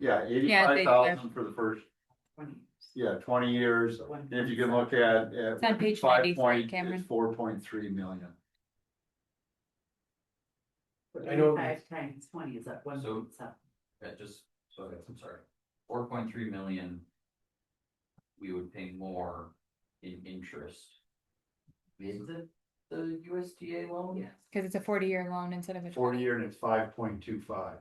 Yeah, Yeah, eighty-five they- thousand for the first, twenty. yeah, twenty years, and if you can look at, at It's on page five 93, point, Cameron. it's four point three million. I know- Five times twenty is at one So- point seven. Yeah, just, so that's- I'm sorry, four point three million. We would pay more in interest. Is the, the USDA Oh, loan? Yes, Cause it's a forty year loan instead of a. Forty 20. year and it's five point two five.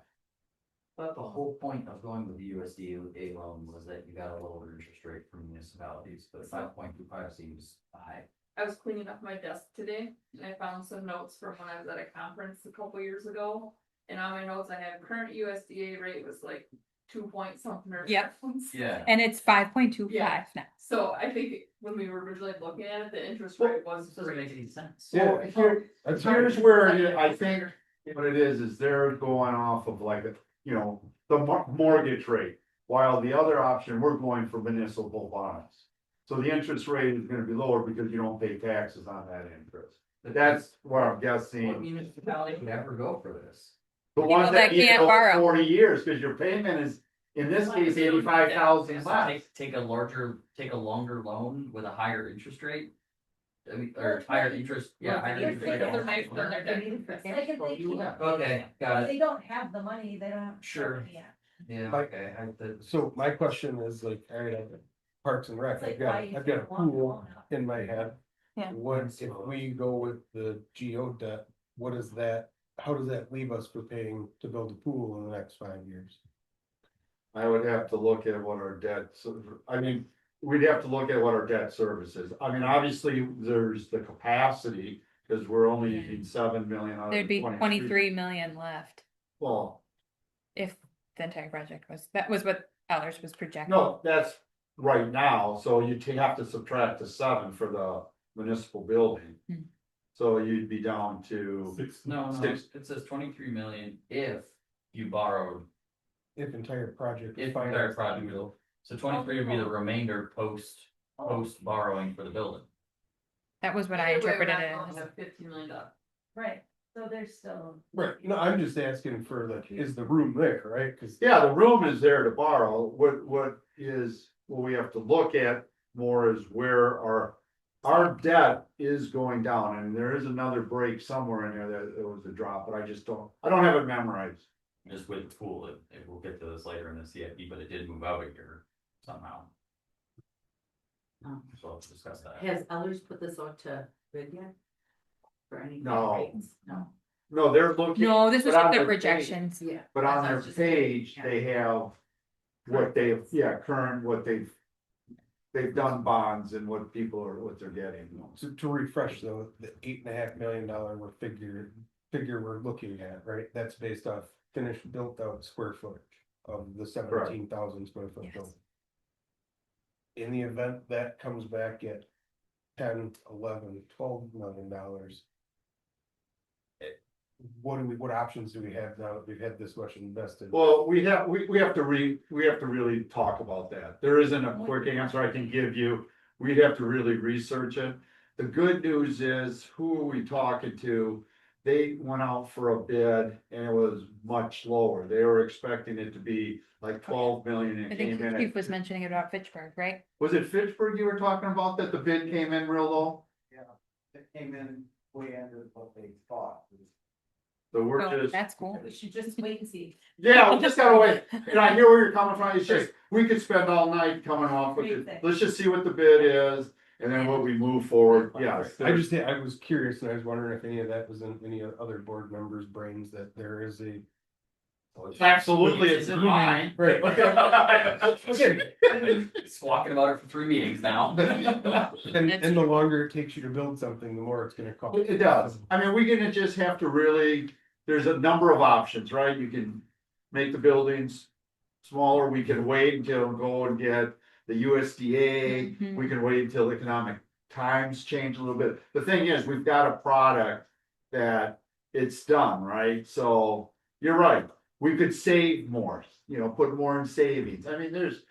But the whole point of going with the USDA loan was that you got a lower interest rate from municipalities, but five point two five seems high. I was cleaning up my desk today and I found some notes from when I was at a conference a couple years ago. And on my notes, I had current USDA rate was like two point something or. Yep. something. Yeah. And it's five point two five Yeah. now. So I think when we were originally looking at it, the interest Well, rate was. doesn't great. make any sense. Yeah, here, That's here's where I think what it is, is they're going off of like, you know, the mor- mortgage rate. While the other option, we're going for municipal bonds. So the interest rate is gonna be lower because you don't pay taxes on that interest. That's what I'm What guessing. municipality would ever go for this? The ones People that that you can't owe borrow. forty years, cause your payment is, in this case, eighty-five thousand So less. Take, take a larger, take a longer loan with a higher interest rate? I mean, or Well, higher right. interest, yeah. Well, higher they're interest taking rate. their money from their They need it for Like if cash they flow, you can't- have- Okay, If got it, they don't have the money, they don't. Sure. Yeah, yeah, Like- okay, I, the, So my question is like, all right, I've got Parks and Rec, it's like I've why got, you I've got a don't want to pool own up. in my head. Yeah. What if we go with the geo debt, what is that, how does that leave us for paying to build a pool in the next five years? I would have to look at what our debt, ser- I mean, we'd have to look at what our debt service is. I mean, obviously, there's the capacity, because we're only Yeah. using seven million out of There'd be the twenty three million left Well, if the entire project was, that was what Ellers was projecting. no, that's right now, so you ta- have to subtract the seven for the municipal building. Hmm. So you'd be down to, no, no, Six. it says twenty-three million if you borrowed, If entire project. is if the entire financed. project will. So twenty-three would be the remainder post, post borrowing for the building. That was what I Either way, we're interpreted not it going as. to Fifteen million dollars. Right, so there's still. Right, no, I'm just asking for like, is the room there, right, cause yeah, the room is there to borrow, what, what is, what we have to look at more is where our. Our debt is going down, and there is another break somewhere in there that there was a drop, but I just don't, I don't have it memorized. Just with the pool, it, it, we'll get to this later in the CIP, but it did move out a year somehow, Um, so let's discuss that. Has others put this out to bid yet? For any? No. rates? No. No, they're looking. No, this was But what on their the page- projections. Yeah. But I on thought it their was just gonna- page, yeah. they have what they've, yeah, current, what they've. They've done bonds and what people are, what they're getting. to, to refresh though, the eight and a half million dollar we're figure, figure we're looking at, right, that's based off finished built out square footage of the seventeen thousand square foot Yes. building. In the event that comes back at ten, eleven, twelve million dollars. it- What do we, what options do we have now that we've had this much invested? Well, we have, we, we have to re, we have to really talk about that. There isn't a quick answer I can give you. We'd have to really research it. The good news is, who are we talking to? They went out for a bid and it was much lower. They were expecting it to be like twelve million and I it came think in. at Chief was mentioning about Fitchburg, right? Was it Fitchburg you were talking about that the bid came in real low? that came in way under what they thought. The Oh, work is, That's cool. We should just wait and see. yeah, we just gotta wait, and I hear where you're coming from, it's just, we could spend all night coming off with it. Great. Let's just see what the bid is, and then what we move forward, yes. I just, I was curious and I was wondering if any of that was in any other board members' brains that there is a Absolutely, it's in mine. Right. I've been Squawking about it for three meetings now. And, That's and the longer it takes you to build something, the more it's gonna cost. It it does, I mean, we're gonna just have to really, there's a number of options, right? You can make the buildings smaller, we can wait until, go and get the USDA, Mhm. We can wait until economic times change a little bit. The thing is, we've got a product that it's done, right? So you're right. We could save more, you know, put more in savings. I mean, there's,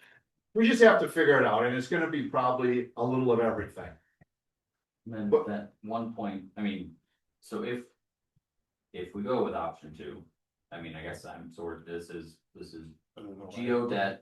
we just have to figure it out and it's gonna be probably a little of everything. Then But- that one point, I mean, so if. If we go with option two, I mean, I guess I'm sort of, this is, this is I don't know why. Oh, Geo debt